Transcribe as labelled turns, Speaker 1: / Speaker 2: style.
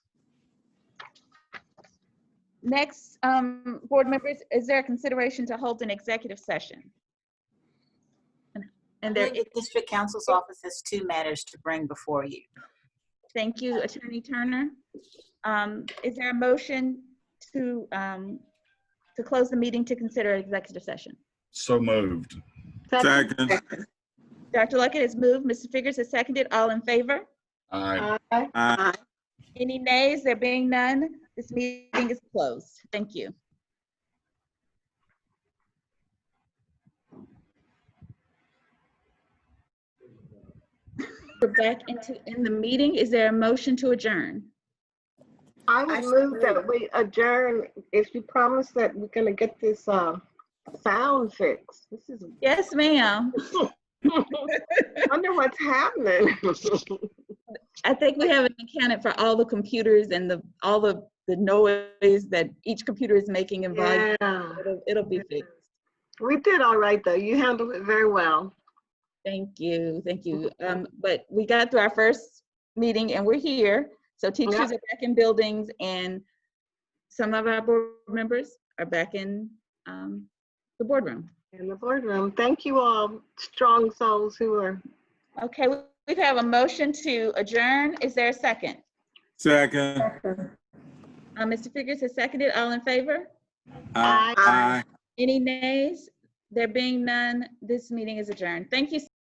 Speaker 1: Next, um, board members, is there a consideration to hold an executive session? And- And there,
Speaker 2: believe the district council's office has two matters to bring before you.
Speaker 1: thank you, Attorney Turner. Um, Is there a motion to, um, to close the meeting to consider executive session?
Speaker 3: So moved.
Speaker 4: Second.
Speaker 1: Dr. Luckett has moved, Mr. Figurs has seconded, all in favor?
Speaker 3: Aye.
Speaker 4: Aye.
Speaker 1: Any nays? There being none, this meeting is closed. Thank you. We're back into, in the meeting. Is there a motion to adjourn?
Speaker 5: I
Speaker 2: I
Speaker 5: would move
Speaker 2: agree.
Speaker 5: that we adjourn if you promise that we're gonna get this, um, sound fixed. This is,
Speaker 1: Yes, ma'am.
Speaker 5: wonder what's happening.
Speaker 1: I think we haven't accounted for all the computers and the, all the, the noise that each computer is making and volume.
Speaker 5: Yeah,
Speaker 1: It'll, it'll be fixed.
Speaker 5: we did all right though. You handled it very well.
Speaker 1: Thank you, thank you. Um, but we got through our first meeting and we're here. So teachers are
Speaker 5: Yep.
Speaker 1: back in buildings and some of our board members are back in, um, the boardroom.
Speaker 5: In the boardroom, thank you all, strong souls who are,
Speaker 1: Okay, we we have a motion to adjourn. Is there a second?
Speaker 4: Second.
Speaker 1: Uh, Mr. Figures has seconded. All in favor?
Speaker 4: Aye.
Speaker 5: Aye.
Speaker 1: Any nays? There being none, this meeting is adjourned. Thank you.